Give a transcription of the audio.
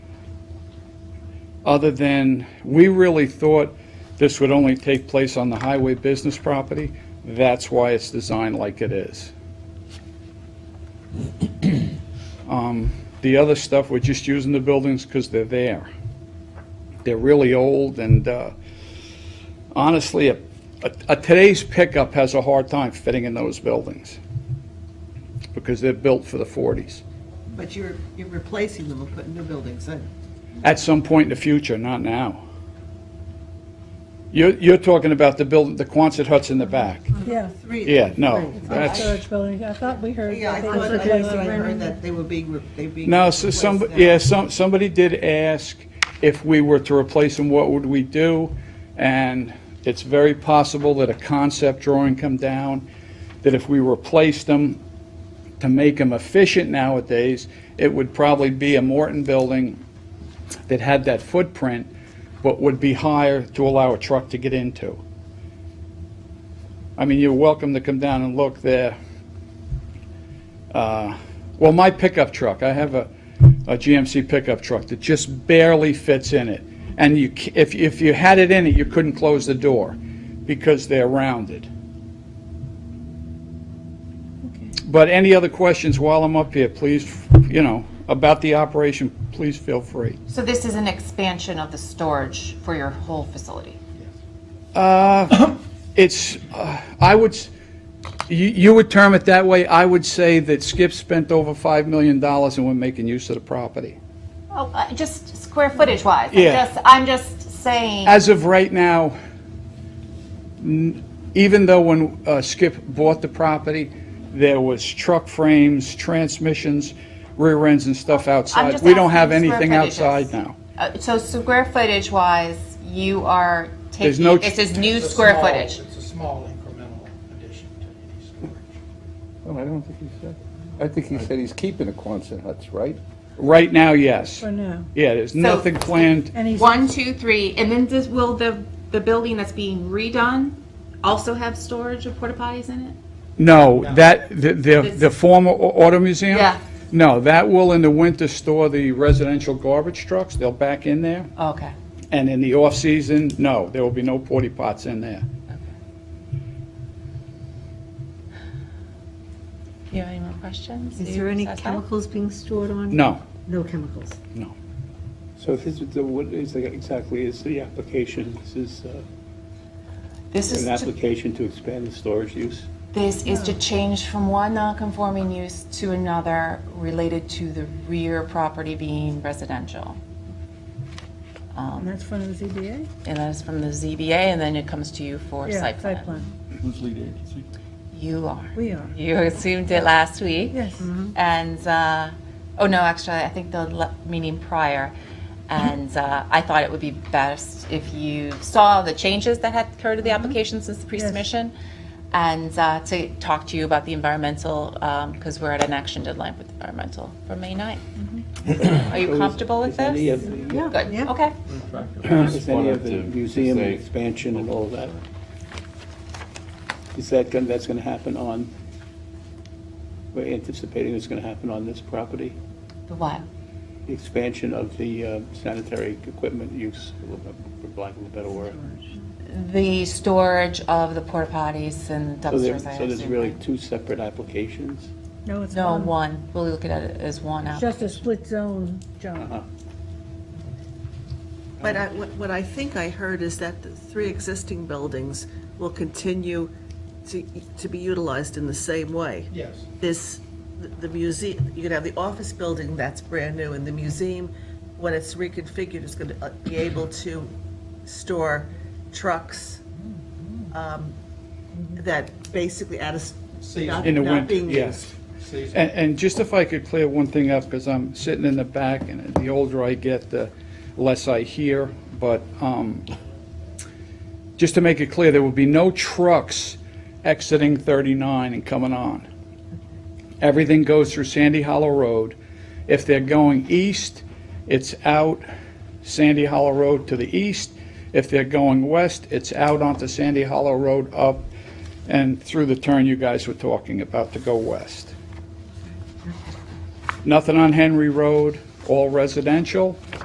other than, we really thought this would only take place on the highway business property. That's why it's designed like it is. Um, The other stuff, we're just using the buildings because they're there. They're really old and uh, honestly, a, a- a today's pickup has a hard time fitting in those buildings because they're built for the 40s. But you're, you're replacing them and putting new buildings in. At some point in the future, not now. You're, you're talking about the building, the Quonset huts in the back. Yeah, Three. Yeah, no, Three. that's- storage building, I thought we heard. Yeah, I that they thought, were I thought I replacing them. heard that they were being, re- they being. No, so replaced some, now. yeah, some, somebody did ask if we were to replace them, what would we do? And it's very possible that a concept drawing come down, that if we replaced them, to make them efficient nowadays, it would probably be a Morton building that had that footprint, but would be higher to allow a truck to get into. I mean, you're welcome to come down and look there. Uh, Well, my pickup truck, I have a, a GMC pickup truck that just barely fits in it. And you, c- if, if you had it in it, you couldn't close the door because they're rounded. But any other questions while I'm up here, please, you know, about the operation, please feel free. So this is an expansion of the storage for your whole facility? Uh, It's, uh, I would, s- you you would term it that way. I would say that Skip spent over $5 million and we're making use of the property. Oh, uh, just square footage wise? I'm Yeah. just- I'm just saying, As of right now, n- even though when uh, Skip bought the property, there was truck frames, transmissions, rear ends and stuff outside. just We don't asking have square anything footages. outside now. uh, so square footage wise, you are There's no taking, ch- this is new It's a square small- footage? It's a small incremental addition to any storage. Well, Oh, I don't think he said. I think he said he's keeping the Quonset huts, right? Right now, yes. For now, Yeah, there's nothing planned. and he's, One, two, three, and then does, will the, the building that's being redone also have storage of porta potties in it? No, that, the, the the former au- auto museum? Yeah. No, that will in the winter store the residential garbage trucks. They'll back in there. Okay. And in the off-season, no, there will be no porta pots in there. You have any more questions? Is You there any satisfied? chemicals being stored on? No, No chemicals. no. So this is, the- what is, the- exactly is the application, this is uh, This is, an to- application to expand the storage use? this is to change from one non-conforming use to another related to the rear property being residential. Um, and that's from the ZBA? And that is from the ZBA, and then it comes to you for Yeah, site plan. Who's lead agency? You are. We are, You assumed it last week. yes. Mm-hmm. And, uh, oh no, actually, I think the le- meeting prior. And uh, I thought it would be best if you saw the changes that had occurred to the Mm-hmm. application since the pre-submission and uh, to talk to you about the environmental, because we're at an action deadline with environmental for May 9th. Mm-hmm. Are you So Oh, is- comfortable with is any this? of the- Good, Yeah. okay. Is any of the museum expansion and all that? Is that, gonna- that's going to happen on, we're anticipating it's going to happen on this property? The what? The expansion of the uh, sanitary equipment use, for lack of a better word. The storage of the porta potties and So there- dumpsters, I So there's assume, really right? two separate applications? No, it's No, one, one. We'll look at it as one app. just a split zone, John. Uh-huh. But I, what what I think I heard is that the three existing buildings will continue to, to be utilized in the same way. Yes. This, the- the museum, you could have the office building that's brand new, and the museum, when it's reconfigured, is gonna uh, be able to store trucks, Mm-hmm. um, that basically out of, s- not, In the not winter, being used. yes. Season. And, and just if I could clear one thing up, because I'm sitting in the back, and the older I get, the less I hear, but, um, just to make it clear, there will be no trucks exiting 39 and coming on. Everything goes through Sandy Hollow Road. If they're going east, it's out Sandy Hollow Road to the east. If they're going west, it's out onto Sandy Hollow Road up and through the turn you guys were talking about to go west. Nothing on Henry Road, all residential.